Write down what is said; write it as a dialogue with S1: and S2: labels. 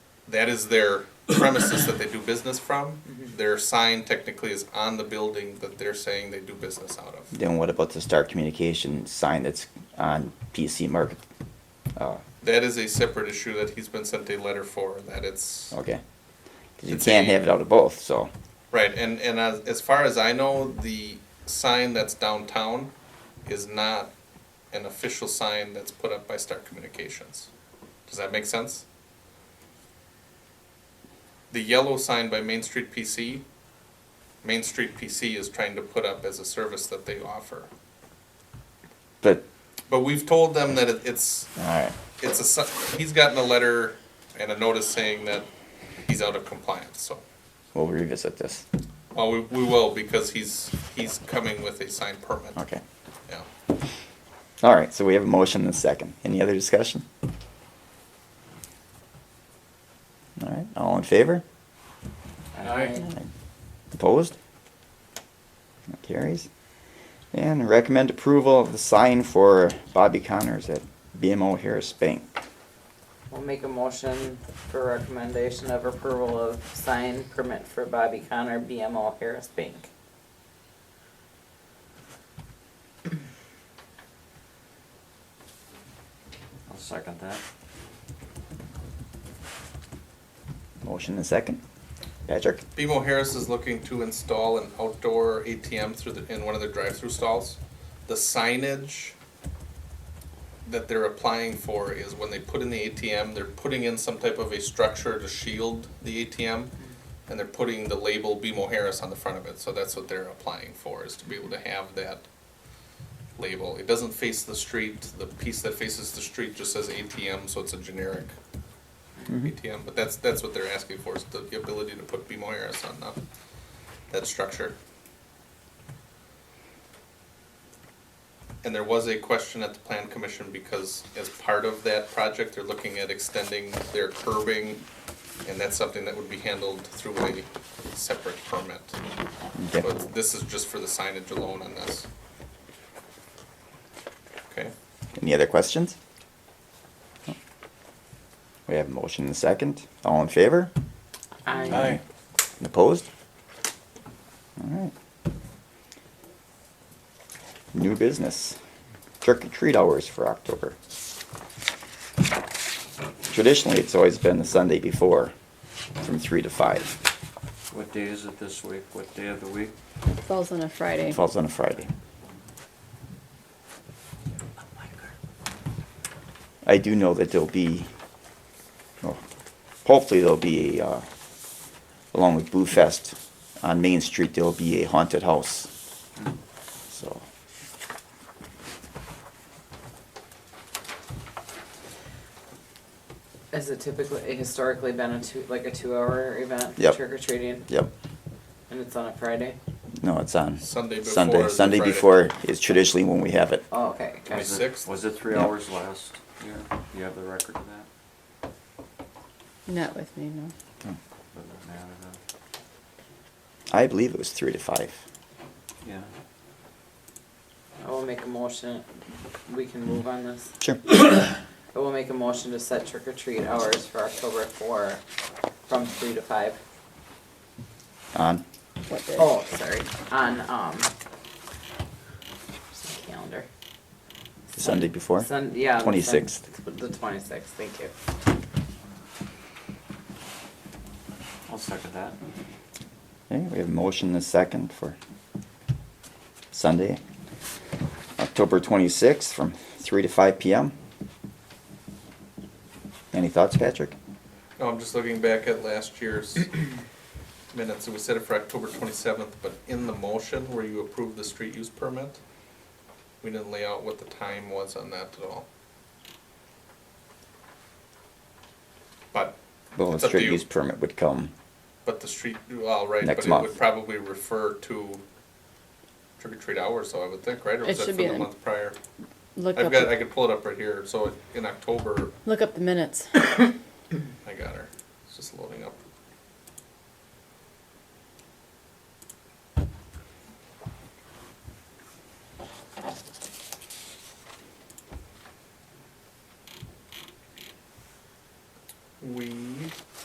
S1: that is their premises that they do business from. Their sign technically is on the building that they're saying they do business out of.
S2: Then what about the Star Communication sign that's on PC Market? Uh,
S1: That is a separate issue that he's been sent a letter for, that it's,
S2: okay. 'Cause you
S1: It's
S2: can't
S1: a-
S2: have it out of both, so,
S1: right, and, and as, as far as I know, the sign that's downtown is not an official sign that's put up by Star Communications. Does that make sense? The yellow sign by Main Street PC, Main Street PC is trying to put up as a service that they offer.
S2: but,
S1: But we've told them that it- it's,
S2: alright,
S1: it's a, si- he's gotten a letter and a notice saying that he's out of compliance, so.
S2: we'll revisit this,
S1: Well, we, we will, because he's, he's coming with a signed permit.
S2: okay.
S1: Yeah.
S2: Alright, so we have a motion and a second, any other discussion? Alright, all in favor? Opposed? That carries. And recommend approval of the sign for Bobby Connors at BMO Harris Bank.
S3: We'll make a motion for recommendation of approval of sign permit for Bobby Connor, BMO Harris Bank.
S4: I'll second that.
S2: Motion and second. Patrick?
S1: BMO Harris is looking to install an outdoor ATM through the, in one of their drive-through stalls. The signage that they're applying for is when they put in the ATM, they're putting in some type of a structure to shield the ATM, and they're putting the label BMO Harris on the front of it, so that's what they're applying for, is to be able to have that label. It doesn't face the street, the piece that faces the street just says ATM, so it's a generic ATM, but that's, that's what they're asking for, is the the ability to put BMO Harris on the, that structure. And there was a question at the plan commission, because as part of that project, they're looking at extending their curbing, and that's something that would be handled through a separate permit.
S2: Okay.
S1: But this is just for the signage alone on this. Okay,
S2: Any other questions? We have a motion and a second. All in favor?
S3: Aye.
S2: And Opposed? Alright. New business. Trick or treat hours for October. Traditionally, it's always been the Sunday before, from three to five.
S4: What day is it this week? What day of the week?
S5: Falls on a Friday.
S2: It falls on a Friday. I do know that there'll be, well, hopefully there'll be, a, uh, along with Boo Fest, on Main Street, there'll be a haunted house. So,
S3: Has it typically, historically been a two, like a two-hour event?
S2: Yep.
S3: Trick or treating,
S2: yep,
S3: and it's on a Friday?
S2: no, it's on
S1: Sunday before.
S2: Sunday.
S1: is the
S2: Sunday
S1: Friday.
S2: before is traditionally when we have it.
S3: Oh, okay, okay.
S4: Was it-
S1: Sixth?
S4: Was it three
S2: Yeah.
S4: hours last year? Do you have the record of that?
S5: Not with me, no.
S4: Doesn't matter then.
S2: I believe it was three to five.
S4: Yeah.
S3: I will make a motion, we can move on this.
S2: Sure.
S3: I will make a motion to set trick or treat hours for October four, from three to five.
S2: On,
S5: What day?
S3: Oh, sorry, on, um, where's my calendar.
S2: Sunday before?
S3: Sun, yeah. the sun-
S2: 26th.
S3: The twenty-sixth, thank you.
S4: I'll second that.
S2: Okay, we have a motion and a second for Sunday, October twenty-sixth, from three to five PM. Any thoughts, Patrick?
S1: No, Oh, I'm just looking back at last year's minutes, and we set it for October twenty-seventh, but in the motion where you approved the street use permit, we didn't lay out what the time was on that at all. But,
S2: Well, the
S1: It's up to
S2: street
S1: you.
S2: use permit would come,
S1: but the street, well, right, but
S2: Next
S1: it
S2: month.
S1: would probably refer to trick or treat hours, though, I would think, right? Or
S5: It
S1: was that for
S5: should be
S1: the
S5: in-
S1: month prior?
S5: Look
S1: I've
S5: up,
S1: got, I could pull it up right here, so in October,
S5: look up the minutes.
S1: I got her, it's just loading up. We